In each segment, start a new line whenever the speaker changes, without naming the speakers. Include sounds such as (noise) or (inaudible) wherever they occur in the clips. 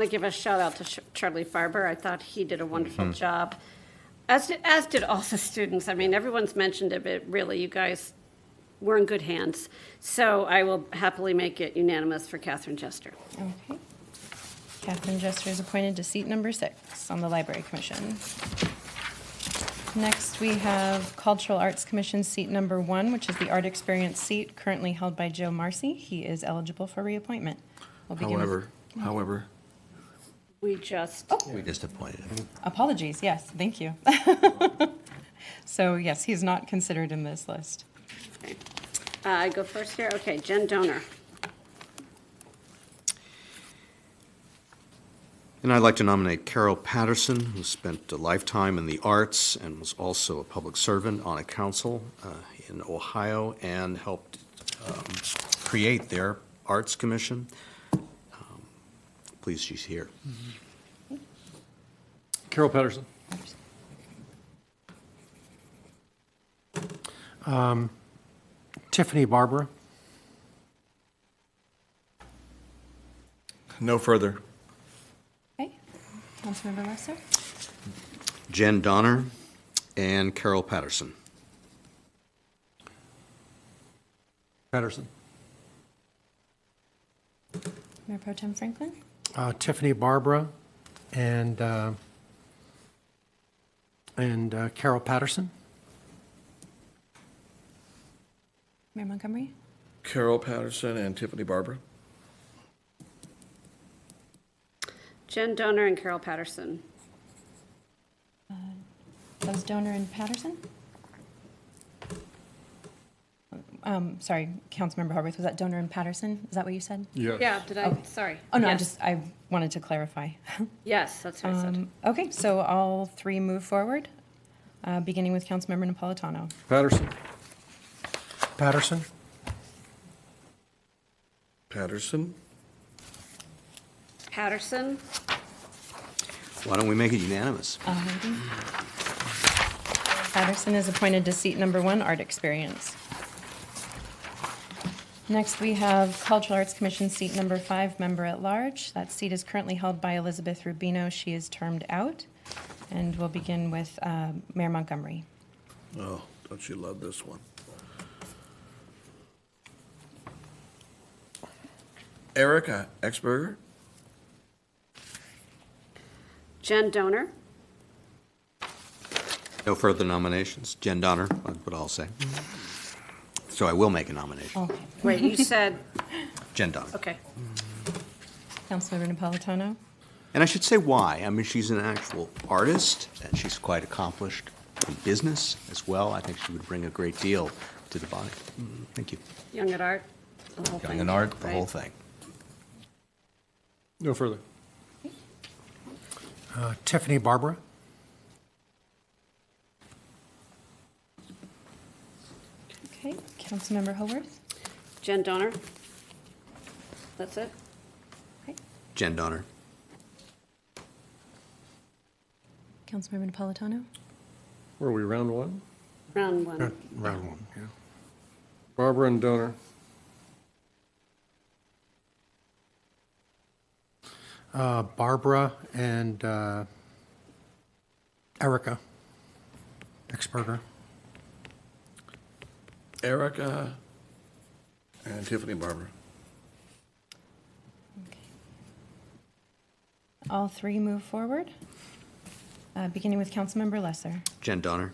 to give a shout out to Sh- Charlie Farber. I thought he did a wonderful
Mm-hmm.
job, as did, as did all the students. I mean, everyone's mentioned it, but really, you guys were in good hands. So I will happily make it unanimous for Catherine Jester.
Okay. Catherine Jester is appointed to seat number six on the Library Commission. Next, we have Cultural Arts Commission seat number one, which is the Art Experience seat currently held by Joe Marcy. He is eligible for reappointment. We'll begin with-
However, however,
We just oh,
We just appointed him.
Apologies, yes, thank you. (laughs) So yes, he's not considered in this list.
okay. uh, I go first here. Okay, Jen Donor.
and I'd like to nominate Carol Patterson, who spent a lifetime in the arts and was also a public servant on a council uh, in Ohio and helped um, create their Arts Commission. Um, Pleased she's here.
Carol Patterson.
Um,
Tiffany Barbara.
No further.
Okay, Councilmember Lesser?
Jen Donner and Carol Patterson.
Patterson.
Mayor Pro Tem Franklin?
Uh, Tiffany Barbara and, uh, and uh, Carol Patterson.
Mayor Montgomery?
Carol Patterson and Tiffany Barber.
Jen Donor and Carol Patterson.
That was Donor and Patterson? Um, sorry, Councilmember Horwath, was that Donor and Patterson? Is that what you said?
Yeah, did I? Sorry.
Oh, no, I
Yes.
just, I wanted to clarify. (laughs)
Yes, that's what I said.
Um, Okay, so all three move forward, uh, beginning with Councilmember Napolitano.
Patterson. Patterson.
Patterson.
Patterson.
Why don't we make it unanimous?
Alrighty. Patterson is appointed to seat number one, Art Experience. Next, we have Cultural Arts Commission seat number five, Member at Large. That seat is currently held by Elizabeth Rubino. She is termed out. And we'll begin with uh, Mayor Montgomery.
Oh, don't you love this one? Erica Exberger.
Jen Donor.
No further nominations. Jen Donner, that's what I'll say.
Mm-hmm.
So I will make a nomination.
Okay.
Wait,
(laughs)
you said,
Jen Donner.
okay.
Councilmember Napolitano?
And I should say why. I mean, she's an actual artist, and she's quite accomplished in business as well. I think she would bring a great deal to the body. Mm, Thank you.
Young at Art. the whole
Young
thing,
and art, the
right?
whole thing.
No further.
Uh, Tiffany Barbara,
Okay. Councilmember Haworth?
Jen Donner. That's it?
Okay.
Jen Donner.
Councilmember Napolitano?
Were we round one?
Round one.
round one, yeah.
Barbara and Donor.
Uh, Barbara and uh, Erica Exberger.
Erica and Tiffany Barber.
Okay. All three move forward, uh, beginning with Councilmember Lesser.
Jen Donner.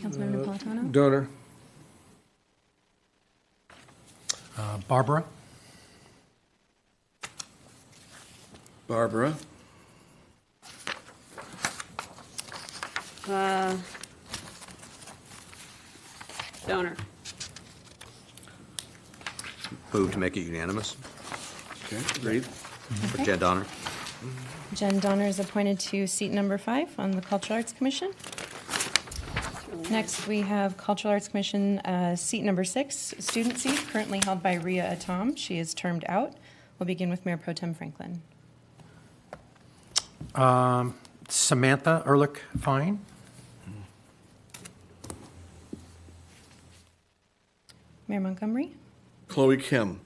Councilmember Napolitano?
Donor.
Uh, Barbara,
Barbara.
Uh, Donor.
Move to make it unanimous
Okay, agreed.
for Jen Donner.
Jen Donner is appointed to seat number five on the Cultural Arts Commission. Next, we have Cultural Arts Commission, uh, seat number six, student seat, currently held by Ria Atom. She is termed out. We'll begin with Mayor Pro Tem Franklin.
Samantha Ehrlich Fine,
Mayor Montgomery?
Chloe Kim.